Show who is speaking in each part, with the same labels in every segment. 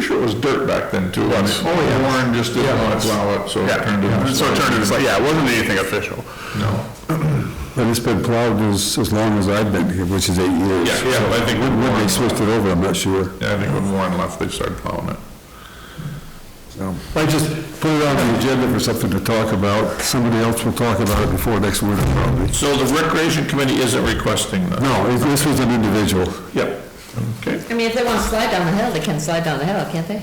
Speaker 1: sure it was dirt back then too. I mean,
Speaker 2: Oh, yeah.
Speaker 1: Warren just didn't want to plow it, so it turned into.
Speaker 3: So it turned into, like, yeah, it wasn't anything official.
Speaker 1: No.
Speaker 2: And it's been plowed as, as long as I've been here, which is eight years.
Speaker 1: Yeah, yeah, but I think when
Speaker 2: When when they
Speaker 1: Warren-
Speaker 2: switched it over, I'm not sure.
Speaker 1: Yeah, I think when Warren left, they started plowing it.
Speaker 2: I just put it on the agenda for something to talk about. Somebody else will talk about it before next winter probably.
Speaker 1: So the recreation committee isn't requesting that?
Speaker 2: No, it- this was an individual.
Speaker 1: Yep. Okay.
Speaker 4: I mean, if they want to slide down the hill, they can slide down the hill, can't they?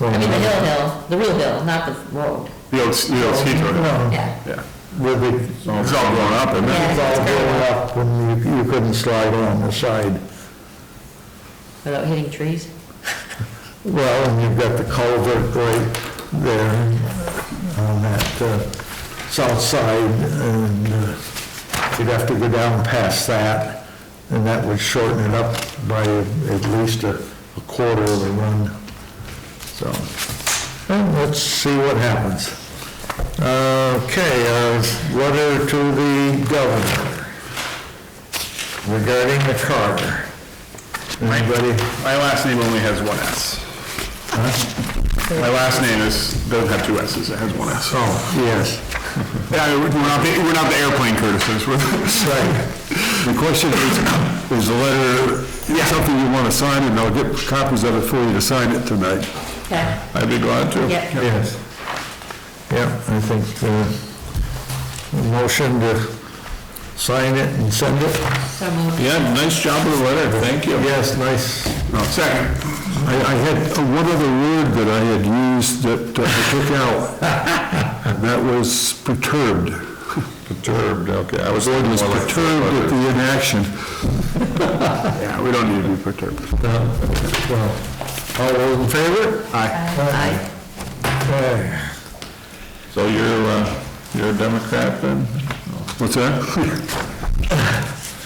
Speaker 4: I mean, the hill, hill, the real hill, not the road,
Speaker 3: The old, the old ski tour.
Speaker 4: yeah.
Speaker 3: Yeah.
Speaker 5: Where they, it's
Speaker 3: It's all grown up, and
Speaker 4: Yeah.
Speaker 5: all going up and you you couldn't slide on the side.
Speaker 4: Without hitting trees?
Speaker 5: Well, and you've got the culvert right there on that uh, south side, and uh, you'd have to go down past that, and that would shorten it up by at least a a quarter of a run. So, well, let's see what happens. Okay, uh, letter to the governor regarding the Carter. Anybody?
Speaker 3: my last name only has one S. My last name is, doesn't have two S's, it has one S.
Speaker 5: Oh, yes.
Speaker 3: Yeah, we're not, the- we're not the airplane Curtises, we're,
Speaker 5: Right.
Speaker 2: The question is, is the letter something you want to sign, and I'll get copies of it for you to sign it tonight.
Speaker 4: Yeah,
Speaker 1: I'd be glad to.
Speaker 4: yeah.
Speaker 5: Yes. Yeah, I think the motion to sign it and send it.
Speaker 4: So moved.
Speaker 1: Yeah, nice job with the letter, thank you.
Speaker 5: Yes, nice.
Speaker 3: second.
Speaker 2: I, I had uh, one other word that I had used that uh, I took out, and that was perturbed.
Speaker 1: Perturbed, okay, I was.
Speaker 2: The board was
Speaker 1: more like-
Speaker 2: perturbed at the inaction.
Speaker 3: Yeah, we don't need to be perturbed.
Speaker 5: Well, All those in favor?
Speaker 4: Aye.
Speaker 5: Aye.
Speaker 1: So you're, uh, you're a Democrat then?
Speaker 2: What's that?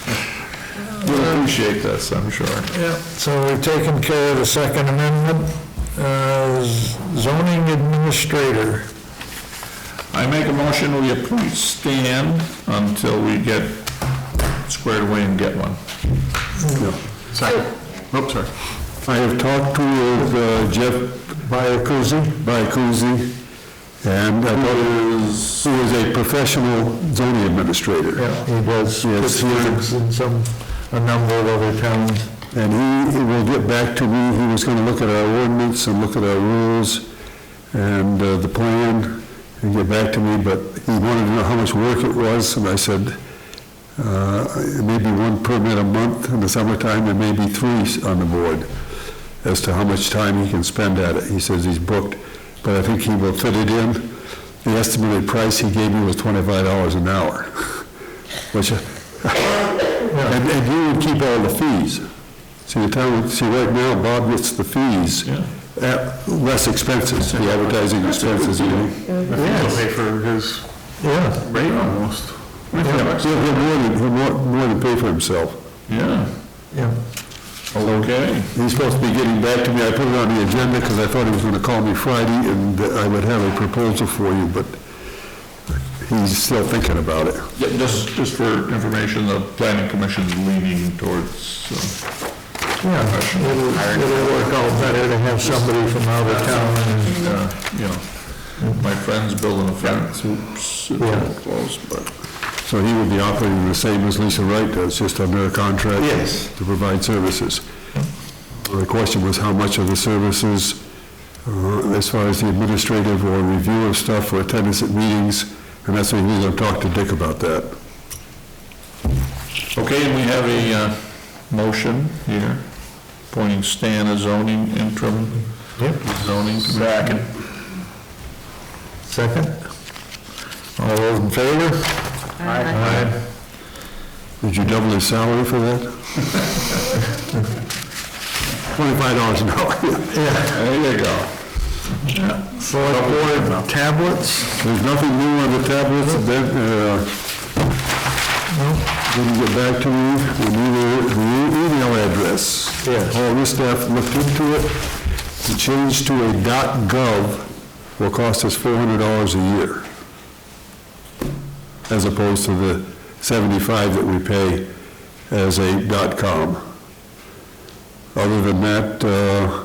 Speaker 1: We'll appreciate this, I'm sure.
Speaker 5: Yeah, so we've taken care of the Second Amendment. Uh, Zoning administrator.
Speaker 1: I make a motion, we appoint Stan until we get squared away and get one.
Speaker 3: Second. Oops, sorry.
Speaker 2: I have talked to uh, Jeff Biacuzzi, Biacuzzi, and I thought he was, he was a professional zoning administrator.
Speaker 5: Yeah, he does
Speaker 2: Yes, he
Speaker 5: Pittsburgh's and some, a number of other towns.
Speaker 2: And he he will get back to me, he was gonna look at our ordinance and look at our rules and uh, the plan and get back to me, but he wanted to know how much work it was, and I said, uh, it may be one permit a month in the summertime, there may be three on the board, as to how much time he can spend at it. He says he's booked, but I think he will fit it in. The estimated price he gave me was twenty-five dollars an hour, which, uh, and and you would keep all the fees. See, the town, see, right now, Bob gets the fees at less expenses, the advertising expenses, you know.
Speaker 3: He'll pay for his
Speaker 5: Yeah.
Speaker 3: rate almost.
Speaker 2: Yeah, He'll he'll more than, he'll more- more than pay for himself.
Speaker 1: Yeah,
Speaker 5: Yeah.
Speaker 1: okay.
Speaker 2: He's supposed to be getting back to me, I put it on the agenda because I thought he was going to call me Friday and that I would have a proposal for you, but he's still thinking about it.
Speaker 1: Yeah, Just, just for information, the planning commission's leaning towards, uh,
Speaker 5: Yeah, it'll, it'll work out better to have somebody from out of town and
Speaker 1: uh, you know, my friend's building a fence, oops,
Speaker 5: Yeah.
Speaker 1: it's close, but.
Speaker 2: So he would be operating the same as Lisa Wright does, just under a contract.
Speaker 5: Yes.
Speaker 2: To provide services. The question was how much of the services, uh, as far as the administrative or review of stuff or attendance at meetings, and that's what he was going to talk to Dick about that.
Speaker 1: Okay, and we have a, uh, motion here, appointing Stan as zoning interim zoning commissioner.
Speaker 5: Second? All those in favor? Aye.
Speaker 2: Did you double his salary for that? Twenty-five dollars an hour. There you go.
Speaker 5: Select board tablets?
Speaker 2: There's nothing new on the tablets, that, uh, didn't get back to me, with either the e- email address.
Speaker 5: Yes.
Speaker 2: All this staff looked into it, the change to a gov will cost us four hundred dollars a year, as opposed to the seventy-five that we pay as a com. Other than that, uh,